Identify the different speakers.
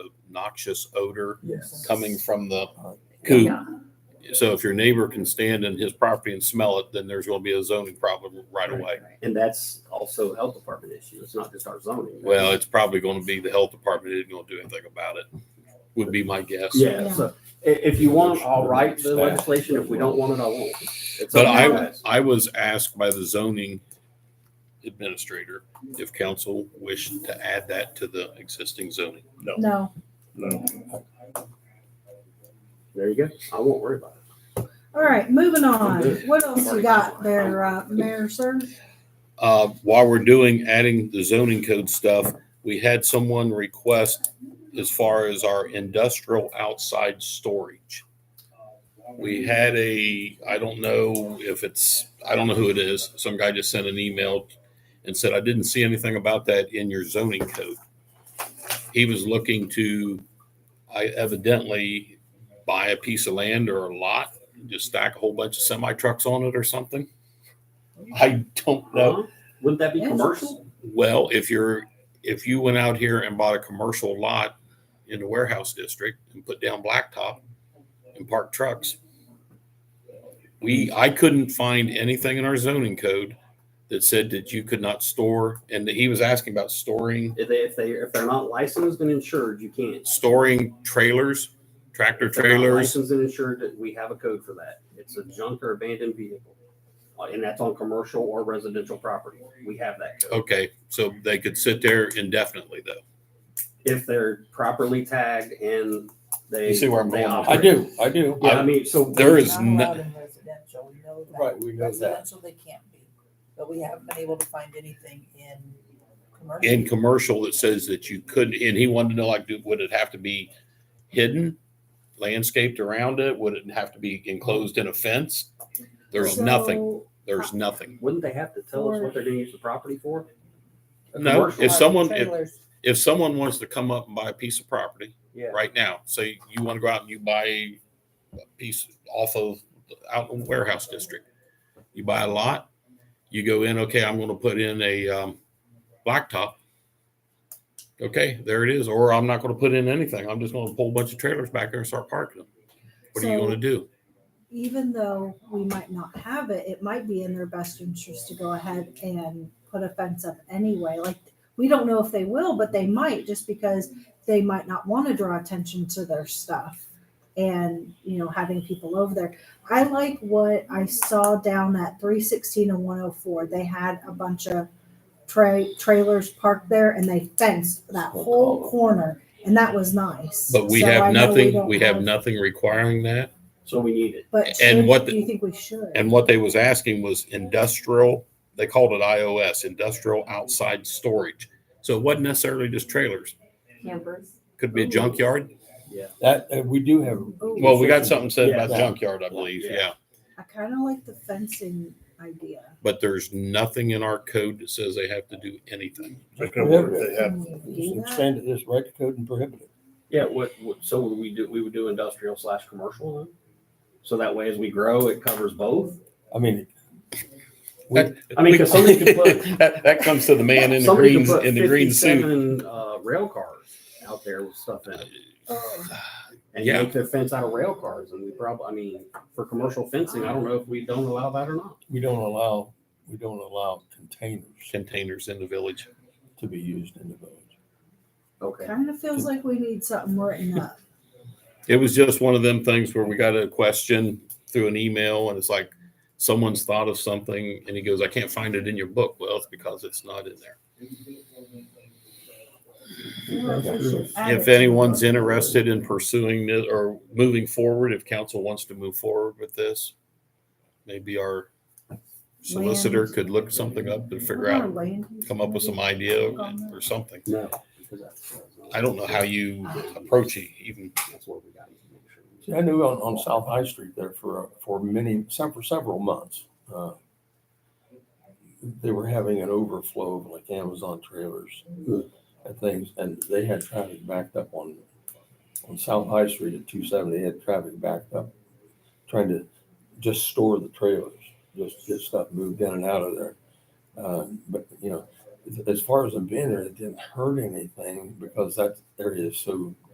Speaker 1: noxious odor
Speaker 2: Yes.
Speaker 1: coming from the coop.
Speaker 3: Yeah,
Speaker 1: So if your neighbor can stand in his property and smell it, then there's going to be a zoning problem right away.
Speaker 4: And that's also a health department issue. It's not just our zoning.
Speaker 1: Well, it's probably going to be the health department isn't going to do anything about it, would be my guess.
Speaker 4: Yeah, so i- if you want, it, I'll write the legislation. If we don't want it, I won't. It's
Speaker 1: But
Speaker 4: up to you
Speaker 1: I,
Speaker 4: guys.
Speaker 1: I was asked by the zoning administrator if council wished to add that to the existing zoning. No.
Speaker 3: no.
Speaker 4: There you go. I won't worry about it.
Speaker 3: All right, moving on. What else you got there, uh, Mayor, sir?
Speaker 1: Uh, while we're doing, adding the zoning code stuff, we had someone request as far as our industrial outside storage. We had a, I don't know if it's, I don't know who it is. Some guy just sent an email and said, I didn't see anything about that in your zoning code. He was looking to, I evidently buy a piece of land or a lot, just stack a whole bunch of semi trucks on it or something. I don't know.
Speaker 4: Huh? Uh-huh. Wouldn't that be
Speaker 3: Yes.
Speaker 4: commercial?
Speaker 1: Well, if you're, if you went out here and bought a commercial lot in the warehouse district and put down blacktop and parked trucks, we, I couldn't find anything in our zoning code that said that you could not store, and that he was asking about storing,
Speaker 4: If they, if they, if they're not licensed and insured, you can't.
Speaker 1: storing trailers, tractor
Speaker 4: If they're not
Speaker 1: trailers.
Speaker 4: Licensed and insured, that we have a code for that. It's a junk or abandoned vehicle. Uh, And that's on commercial or residential property. We have that code.
Speaker 1: Okay, so they could sit there indefinitely though.
Speaker 4: If they're properly tagged and they.
Speaker 1: You see where I'm
Speaker 4: they
Speaker 1: going with
Speaker 5: I
Speaker 4: operate.
Speaker 5: do, I do.
Speaker 4: Yeah, I mean, so.
Speaker 1: There is
Speaker 6: Not
Speaker 1: no,
Speaker 6: allowed in residential, we know that.
Speaker 5: Right, we know that.
Speaker 6: Residential, they can't be, but we haven't been able to find anything in commercial.
Speaker 1: in commercial that says that you couldn't, and he wanted to know, like, do- would it have to be hidden, landscaped around it? Would it have to be enclosed in a fence? There's
Speaker 3: So,
Speaker 1: nothing, there's nothing.
Speaker 4: Wouldn't they have to tell us what they're gonna use the property for? A
Speaker 1: No,
Speaker 4: commercial-
Speaker 1: if someone, if,
Speaker 6: Trailers.
Speaker 1: if someone wants to come up and buy a piece of property
Speaker 4: Yeah.
Speaker 1: right now, say you want to go out and you buy a piece off of, out in warehouse district. You buy a lot, you go in, okay, I'm going to put in a, um, blacktop. Okay, there it is. Or I'm not going to put in anything. I'm just going to pull a bunch of trailers back there and start parking them. What are you
Speaker 3: So-
Speaker 1: going to do?
Speaker 3: Even though we might not have it, it might be in their best interest to go ahead and put a fence up anyway. Like, we don't know if they will, but they might just because they might not want to draw attention to their stuff and, you know, having people over there. I like what I saw down at 316 and 104. They had a bunch of tra- trailers parked there and they fenced that whole corner. And that was nice.
Speaker 1: But we
Speaker 3: So I
Speaker 1: have
Speaker 3: know
Speaker 1: nothing,
Speaker 3: don't
Speaker 1: we have nothing requiring that.
Speaker 4: So we need it.
Speaker 3: But
Speaker 1: And
Speaker 3: should-
Speaker 1: what
Speaker 3: do
Speaker 1: the-
Speaker 3: you think we should?
Speaker 1: And what they was asking was industrial, they called it IOS, industrial outside storage. So it wasn't necessarily just trailers.
Speaker 7: Campers.
Speaker 1: Could be a junkyard.
Speaker 4: Mm-hmm.
Speaker 5: That, uh, we do have.
Speaker 3: Ooh,
Speaker 1: Well, we got something said about
Speaker 5: Yeah.
Speaker 1: junkyard, I believe,
Speaker 4: Yeah.
Speaker 1: yeah.
Speaker 3: Oh, I kind of like the fencing idea.
Speaker 1: But there's nothing in our code that says they have to do anything.
Speaker 5: prohibited.
Speaker 3: Can we do that?
Speaker 5: Extend it as right to code and prohibited.
Speaker 4: Yeah, what, what, so would we do, we would do industrial slash commercial then? So that way as we grow, it covers both?
Speaker 5: I mean,
Speaker 1: That-
Speaker 4: I mean, 'cause somebody could put-
Speaker 1: That, that comes to the man in the
Speaker 4: Somebody
Speaker 1: green,
Speaker 4: could put
Speaker 1: in the green suit.
Speaker 4: 57, Uh, rail cars out there with stuff in it.
Speaker 3: Oh,
Speaker 4: And
Speaker 1: Yeah.
Speaker 4: make the fence out of rail cars and we probably, I mean, for commercial fencing, I don't know if we don't allow that or not.
Speaker 5: we don't allow, we don't allow containers
Speaker 1: Containers in the village.
Speaker 5: to be used in the village.
Speaker 4: Okay.
Speaker 3: Kind of feels like we need something written up.
Speaker 1: It was just one of them things where we got a question through an email and it's like, someone's thought of something and he goes, I can't find it in your book. Well, it's because it's not in there. If anyone's interested in pursuing this or moving forward, if council wants to move forward with this, maybe our solicitor
Speaker 3: Land.
Speaker 1: could look something up and figure out, come up with some idea or something.
Speaker 4: No. because that's-
Speaker 1: I don't know how you approach it even.
Speaker 4: That's what we got to make sure.
Speaker 5: See, I knew on, on South High Street there for, for many, some, for several months, uh, they were having an overflow of like Amazon trailers and things, and they had traffic backed up on, on South High Street at two seventy, they had traffic backed up, trying to just store the trailers, just get stuff moved in and out of there. Uh, but, you know, as- as far as them being there, it didn't hurt anything because that area is so